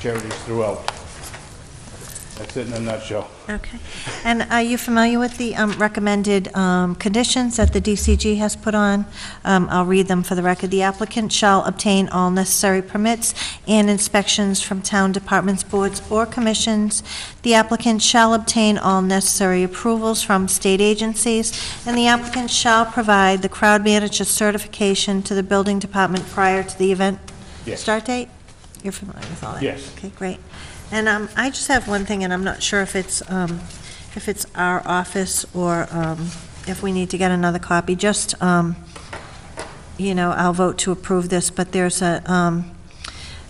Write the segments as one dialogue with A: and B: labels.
A: charities throughout. That's it in a nutshell.
B: Okay. And are you familiar with the um, recommended um, conditions that the DCG has put on? Um, I'll read them for the record. The applicant shall obtain all necessary permits and inspections from town departments, boards, or commissions. The applicant shall obtain all necessary approvals from state agencies, and the applicant shall provide the crowd manager certification to the building department prior to the event
A: Yes.
B: start date? You're familiar with all that?
A: Yes.
B: Okay, great. And um, I just have one thing, and I'm not sure if it's, um, if it's our office or um, if we need to get another copy. Just, um, you know, I'll vote to approve this, but there's a um,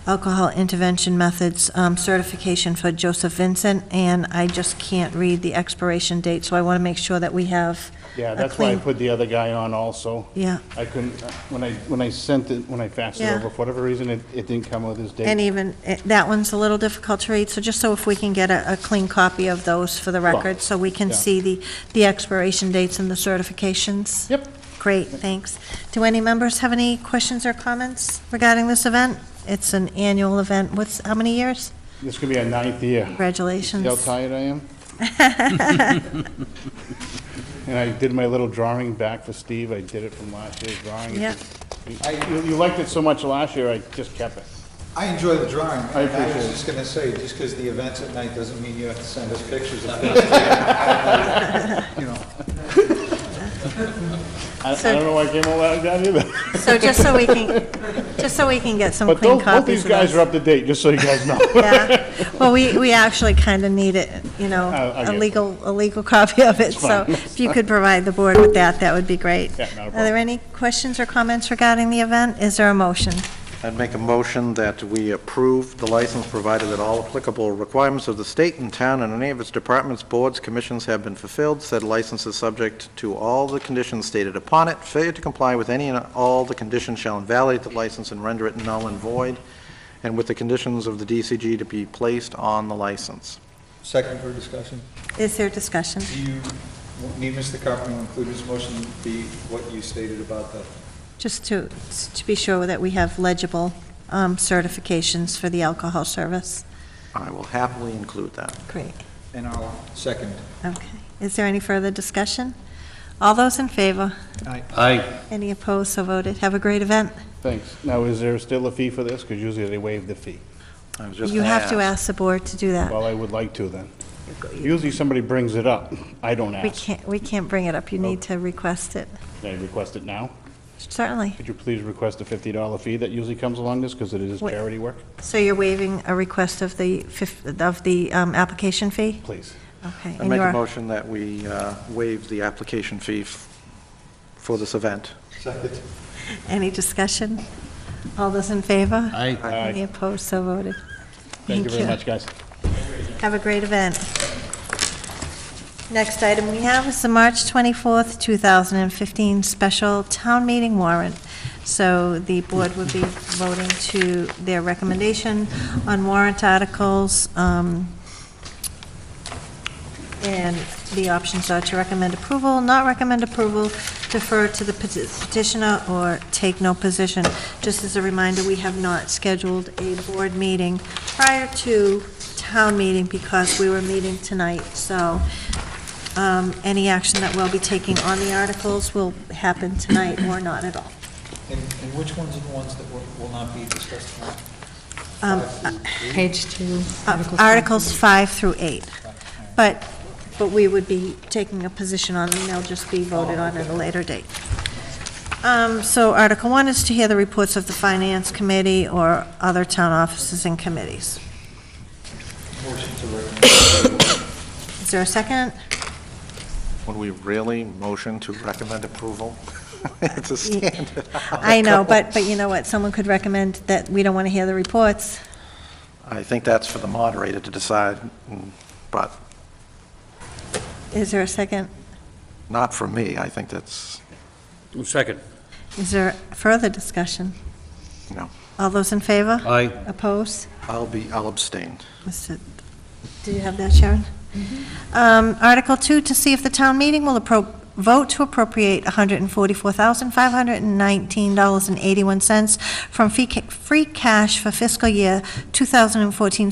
B: alcohol intervention methods um, certification for Joseph Vincent, and I just can't read the expiration date, so I want to make sure that we have
A: Yeah,
B: a
A: that's why I
B: clean-
A: put the other guy on also.
B: Yeah.
A: I couldn't, uh, when I, when I sent it, when I faxed it
B: Yeah.
A: over, for whatever reason, it, it didn't come with his date.
B: And even, eh, that one's a little difficult to read, so just so if we can get a, a clean copy of those for the record, so we can
A: Yeah.
B: see the, the expiration dates and the certifications.
A: Yep.
B: Great, thanks. Do any members have any questions or comments regarding this event? It's an annual event, what's, how many years?
A: This could be a ninth year. See
B: Congratulations.
A: how tired I am? And I did my little drawing back for Steve, I did it from last year's drawing. It
B: Yeah.
A: just- I- You you liked it so much last year, I just kept it.
C: I enjoy the drawing.
A: I appreciate
C: was
A: it.
C: just gonna say, just because the event's at night doesn't mean you have to send us pictures of You know,
A: I I
B: So-
A: don't know why I came all out down either.
B: So just so we can, just so we can get some
A: But
B: clean
A: those-
B: copies
A: both these
B: of
A: guys
B: those.
A: are up to date, just so you guys know.
B: Yeah, well, we, we actually kind of need it, you know,
A: Oh, I- I
B: a
A: get it.
B: legal, a legal copy of it, so
A: fine.
B: if you could provide the board with that, that would be great.
A: Yeah, not a
B: Are there
A: problem.
B: any questions or comments regarding the event? Is there a motion?
D: I'd make a motion that we approve the license provided that all applicable requirements of the state and town and any of its departments, boards, commissions have been fulfilled. Said license is subject to all the conditions stated upon it. Failure to comply with any and all the conditions shall invalidate the license and render it null and void, and with the conditions of the DCG to be placed on the license.
C: second for discussion.
B: Is there discussion?
C: Do you need Mr. Carpenter to include his motion to be what you stated about the,
B: Just to, to be sure that we have legible um, certifications for the alcohol service.
D: I will happily include that.
B: Great.
C: and I'll second.
B: Okay. Is there any further discussion? All those in favor?
E: Aye.
B: Any opposed? So voted. Have a great event.
A: Thanks. Now, is there still a fee for this? Because usually they waive the fee.
D: I was just
B: You
D: gonna
B: have to ask the board to do that.
A: Well, I would like to then. Usually somebody brings it up. I don't
B: We
A: ask.
B: can't, we can't bring it up. You
A: Oh.
B: need to request it.
A: Can I request it now?
B: Certainly.
A: Could you please request a $50 fee that usually comes along this because it is
B: Wait.
A: charity work?
B: So you're waiving a request of the, fif- of the um, application fee?
A: Please.
B: Okay.
D: I
B: and
D: make
B: you
D: a
B: are-
D: motion that we uh, waive the application fee f- for this event.
C: Second.
B: Any discussion? All those in favor?
E: Aye.
A: Aye.
B: Any opposed? So voted.
A: Thank you very much, guys.
B: Have a great event. Next item we have is the March 24th, 2015 special town meeting warrant. So the board would be voting to their recommendation on warrant articles. um, And the options are to recommend approval, not recommend approval, defer to the peti- petitioner, or take no position. Just as a reminder, we have not scheduled a board meeting prior to town meeting because we were meeting tonight, so um, any action that we'll be taking on the articles will happen tonight or not at all.
C: And, and which ones are the ones that will, will not be discussed tonight?
B: Um,
C: Five through eight?
F: Page two.
B: Uh,
F: three.
B: Articles five through eight,
C: All right.
B: but, but we would be taking a position on them, they'll just be voted on at a later date. Um, So Article one is to hear the reports of the Finance Committee or other town offices and committees.
C: Motion to recommend.
B: Is there a second?
D: Would we really motion to recommend approval? It's a standard.
B: I know, but, but you know what, someone could recommend that we don't want to hear the reports.
D: I think that's for the moderator to decide, mm, but
B: Is there a second?
D: not for me. I think that's,
E: Second.
B: Is there further discussion?
D: no.
B: All those in favor?
E: Aye.
B: Opposed?
D: I'll be, I'll abstain.
B: Mr. Do you have that, Sharon? Um, Article 2, to see if the town meeting will appro- vote to appropriate $144,519.81 from fee ca- free cash for fiscal year 2014